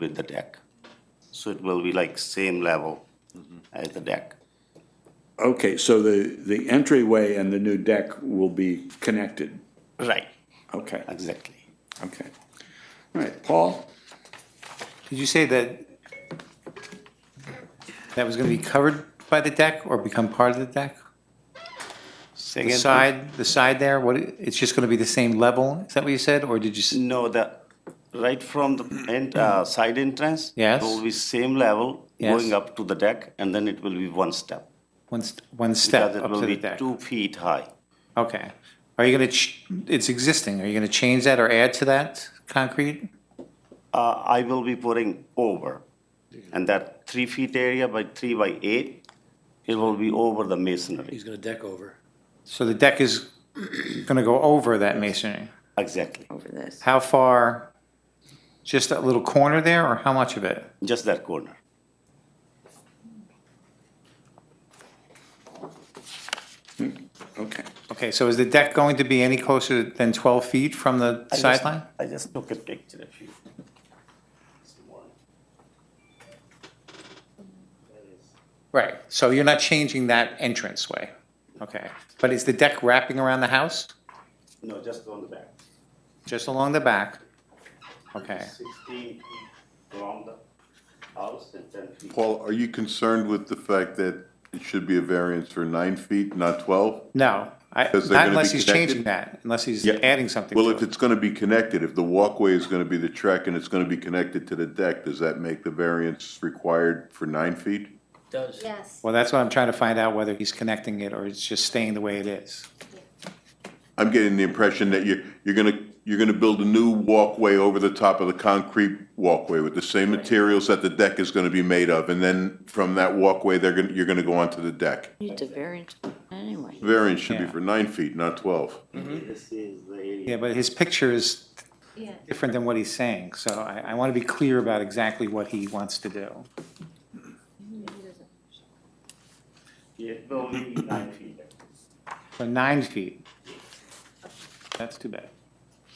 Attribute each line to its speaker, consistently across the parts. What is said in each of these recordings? Speaker 1: with the deck. So it will be like same level as the deck.
Speaker 2: Okay, so the, the entryway and the new deck will be connected.
Speaker 1: Right.
Speaker 2: Okay,
Speaker 1: Exactly.
Speaker 2: okay. All right, Paul?
Speaker 3: Did you say that that was going to be covered by the deck or become part of the deck?
Speaker 1: Say
Speaker 3: The
Speaker 1: again,
Speaker 3: side, the side there, what, it's just going to be the same level? Is that what you said? Or did you,
Speaker 1: please?
Speaker 3: s-
Speaker 1: No, the, right from the end, uh, side entrance.
Speaker 3: Yes.
Speaker 1: It will be same level
Speaker 3: Yes.
Speaker 1: going up to the deck and then it will be one step.
Speaker 3: one, st- one step
Speaker 1: Because
Speaker 3: up
Speaker 1: it
Speaker 3: to
Speaker 1: will
Speaker 3: the
Speaker 1: be
Speaker 3: deck?
Speaker 1: two feet high.
Speaker 3: Okay. Are you going to, ch it's existing, are you going to change that or add to that concrete?
Speaker 1: Uh, I will be putting over. And that three feet area by three by eight, it will be over the masonry.
Speaker 4: He's gonna deck over.
Speaker 3: So the deck is going to go over that masonry?
Speaker 1: Exactly.
Speaker 5: over this.
Speaker 3: How far, just that little corner there or how much of it?
Speaker 1: Just that corner.
Speaker 2: Okay.
Speaker 3: Okay, so is the deck going to be any closer than 12 feet from the
Speaker 1: I just-
Speaker 3: sideline?
Speaker 1: I just took a picture of you.
Speaker 3: Right, so you're not changing that entranceway? Okay, but is the deck wrapping around the house,
Speaker 1: No, just on the back.
Speaker 3: just along the back? Okay,
Speaker 1: Sixteen feet from the house and ten feet.
Speaker 6: Paul, are you concerned with the fact that it should be a variance for nine feet, not 12?
Speaker 3: no, I-
Speaker 6: Because they're
Speaker 3: not
Speaker 6: gonna
Speaker 3: unless
Speaker 6: be
Speaker 3: he's
Speaker 6: connected?
Speaker 3: changing that, unless he's
Speaker 6: Yeah.
Speaker 3: adding something
Speaker 6: Well, if
Speaker 3: to it.
Speaker 6: it's going to be connected, if the walkway is going to be the track and it's going to be connected to the deck, does that make the variance required for nine feet?
Speaker 4: Does.
Speaker 7: Yes,
Speaker 3: Well, that's what I'm trying to find out, whether he's connecting it or it's just staying the way it is.
Speaker 6: I'm getting the impression that you're, you're going to, you're going to build a new walkway over the top of the concrete walkway with the same materials that the deck is going to be made of, and then from that walkway, they're going, you're going to go onto the deck.
Speaker 5: You need to variance anyway.
Speaker 6: Variance should be
Speaker 3: Yeah.
Speaker 6: for nine feet, not 12.
Speaker 1: This is the area.
Speaker 3: Yeah, but his picture is
Speaker 7: yeah.
Speaker 3: different than what he's saying, so I, I want to be clear about exactly what he wants to do.
Speaker 1: It will be nine feet.
Speaker 3: So nine feet. That's too bad.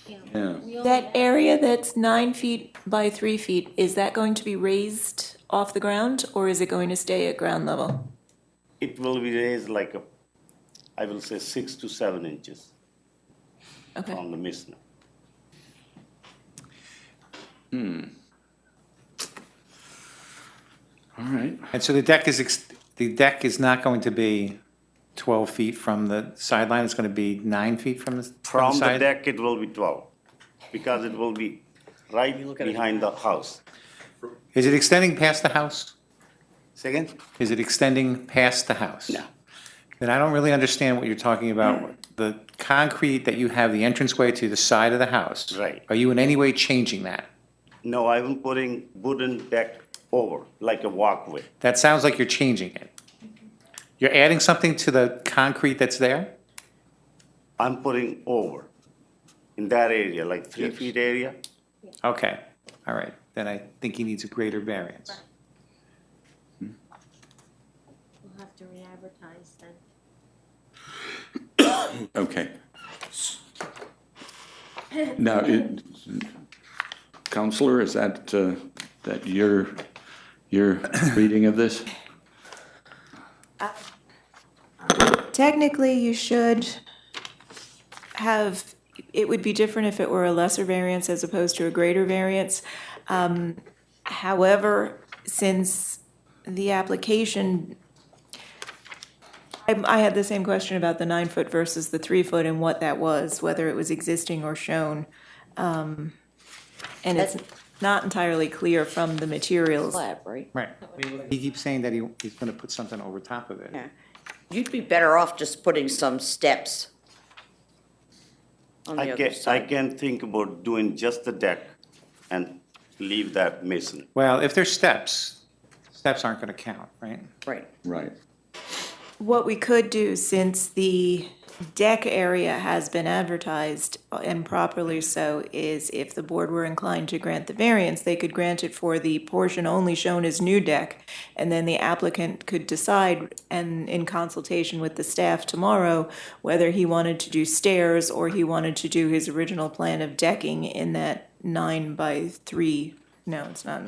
Speaker 2: Yeah.
Speaker 7: We only
Speaker 8: That
Speaker 7: have-
Speaker 8: area that's nine feet by three feet, is that going to be raised off the ground or is it going to stay at ground level?
Speaker 1: It will be raised like a, I will say six to seven inches
Speaker 8: Okay.
Speaker 1: from the masonry.
Speaker 2: All right.
Speaker 3: And so the deck is, ex- the deck is not going to be 12 feet from the sideline, it's going to be nine feet from the from the
Speaker 1: From the
Speaker 3: side?
Speaker 1: deck, it will be twelve, because it will be right behind the house.
Speaker 3: Is it extending past the house?
Speaker 1: Second?
Speaker 3: Is it extending past the house?
Speaker 1: No. Mm.
Speaker 3: Then I don't really understand what you're talking about. The concrete that you have, the entranceway to the side of the house.
Speaker 1: Right.
Speaker 3: Are you in any way changing that?
Speaker 1: No, I am putting wooden deck over, like a walkway.
Speaker 3: That sounds like you're changing it. You're adding something to the concrete that's there?
Speaker 1: I'm putting over in that area, like three feet area.
Speaker 3: Okay, all right, then I think he needs a greater variance.
Speaker 7: We'll have to re-advertise then.
Speaker 2: Okay. Now, it, Counselor, is that, uh, that your, your reading of this?
Speaker 8: Technically, you should have, it would be different if it were a lesser variance as opposed to a greater variance. Um, However, since the application, I, I had the same question about the nine foot versus the three foot and what that was, whether it was existing or shown. Um, And it's not entirely clear from the materials.
Speaker 5: Slab, right?
Speaker 3: Right. He keeps saying that he, he's gonna put something over top of it.
Speaker 5: Yeah. You'd be better off just putting some steps on
Speaker 1: I
Speaker 5: the other
Speaker 1: can, I
Speaker 5: side.
Speaker 1: can think about doing just the deck and leave that masonry.
Speaker 3: Well, if there's steps, steps aren't gonna count, right?
Speaker 5: Right.
Speaker 2: Right.
Speaker 8: What we could do, since the deck area has been advertised, and properly so, is if the board were inclined to grant the variance, they could grant it for the portion only shown as new deck, and then the applicant could decide, and in consultation with the staff tomorrow, whether he wanted to do stairs or he wanted to do his original plan of decking in that nine by three, no, it's not